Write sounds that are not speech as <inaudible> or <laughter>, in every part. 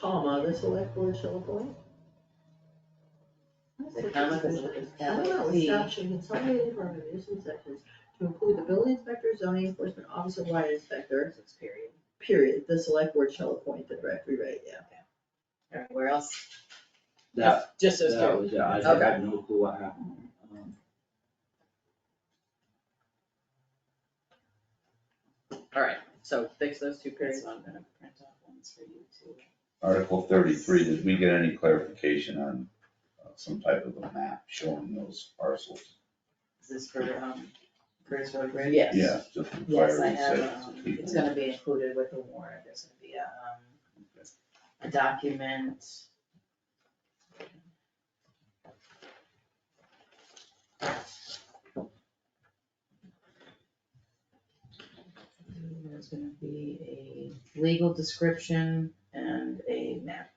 comma, the select board shall appoint. The comma is like I don't know, LC. staff should consolidate the organization sections to include the building inspector, zoning enforcement officer, light inspector, Six period. period, the select board shall appoint the director, right, <laughs> yeah. All right, where else? That, Just those that two. was, yeah, I Okay. had no clue what happened. Um, All right, so fix those two periods. I'm gonna print out ones for you too. Article thirty-three, did we get any clarification on uh, some type of a map showing those parcels? Is this for, um, Curtis Road Bridge? Yes. Yeah, just for Yes, I clarity's sake. have, um, it's gonna be included with the warrant, there's gonna be a, um, a document. There's gonna be a legal description and a map.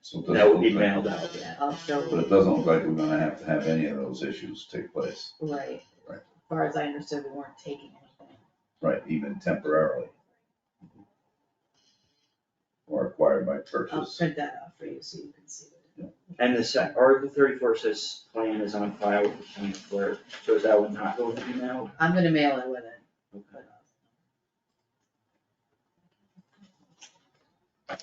So it That would doesn't be look like- mailed out. I'll show But it doesn't look like we're gonna have to have any of those issues take place, Right. Right. As far as I understood, we weren't taking anything. right, even temporarily. Or acquired by I'll purchase. print that out for you so you can see it. And the sec, Article thirty-four says plan is on file with the county clerk, so is that one not going to be mailed? I'm gonna mail it with it, <laughs> but.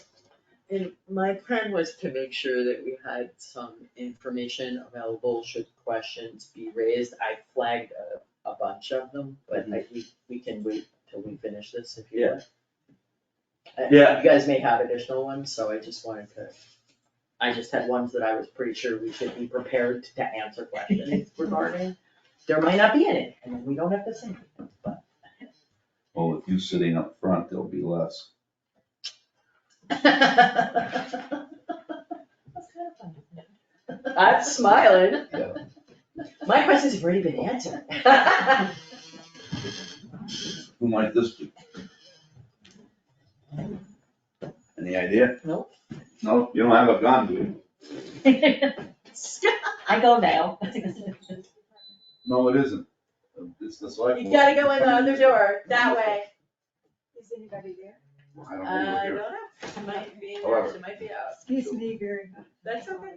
And my plan was to make sure that we had some information available should questions be raised. I flagged a, a bunch of them, but I, we, we can wait till we finish this if you want. I- Yeah. You guys may have additional ones, so I just wanted to, I just had ones that I was pretty sure we should be prepared to answer questions regarding. There might not be any, and we don't have to say anything, but. Well, with you sitting up front, there'll be less. That's kind of fun. I'm smiling. Yeah. My questions have already been answered. <laughs> <laughs> Who might this be? Any idea? Nope. No, you don't have a gun, do you? I go now. No, it isn't. It's the select. You board. gotta go in the other door, that way. Is anybody there? I don't I know, we're don't here. know, she might be in there, However. she might be out, Excuse me very much. that's okay.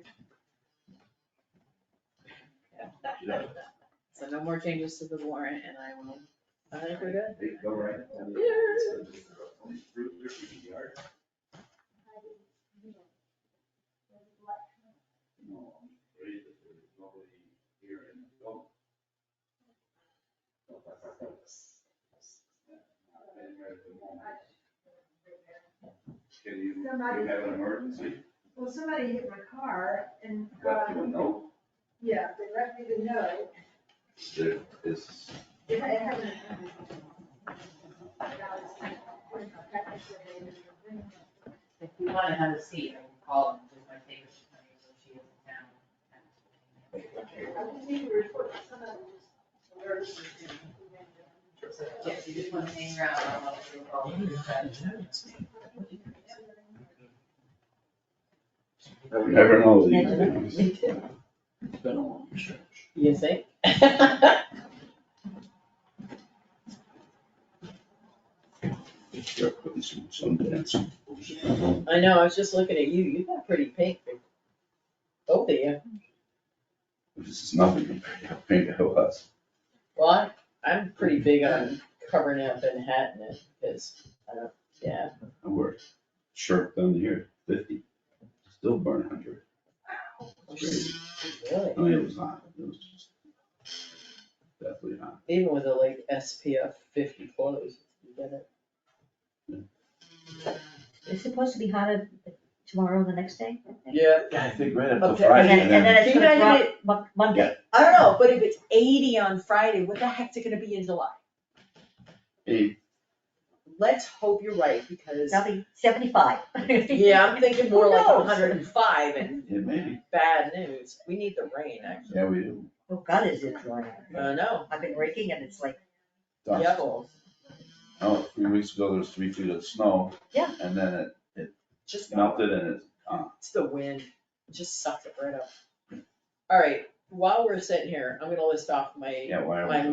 Uh, Yeah. So no more changes to the warrant and I will. I think we're good. Hey, Go right. Can you, you have an emergency, Well, somebody hit my car and, let uh, people know, yeah, they left me to know. there is, If I haven't. If you wanna have a seat, I can call them, just my favorite, she is in I just need to report to somebody who's. town. Yes, you just wanna hang around, I'll help you call. you never know. these things. It's been a long trip. You think? Start putting some, some dents. I know, I was just looking at you, you got pretty pink. Oh, dear. This is nothing compared to how big it was. Well, I- I'm pretty big on covering up and hatting it, because I don't, yeah. I wore a shirt down here, fifty, still burn hundred. Crazy. Really? I mean, it was hot, it was just definitely hot. Even with a like SPF fifty clothes, you get it. It's supposed to be hotter tomorrow, the next day, I think. Yeah. I think right up till Okay, And then, and then it's You know, gonna I drop Mon- Monday. I don't know, but if it's eighty on Friday, what the heck's it gonna be in July? Let's hope you're right, because, That'll be seventy-five. yeah, <laughs> I'm thinking more like Who knows? hundred and five and It may be, bad news, we need the rain, actually, yeah, we do. Oh, God, is it dry. I know, I've been raking and it's like, Dust. yeah. Oh, three weeks ago, there was three feet of snow. Yeah. And then it Just, melted and it, it's the wind, It just sucks it right up. Alright, while we're sitting here, I'm gonna list off my yeah, why are we? My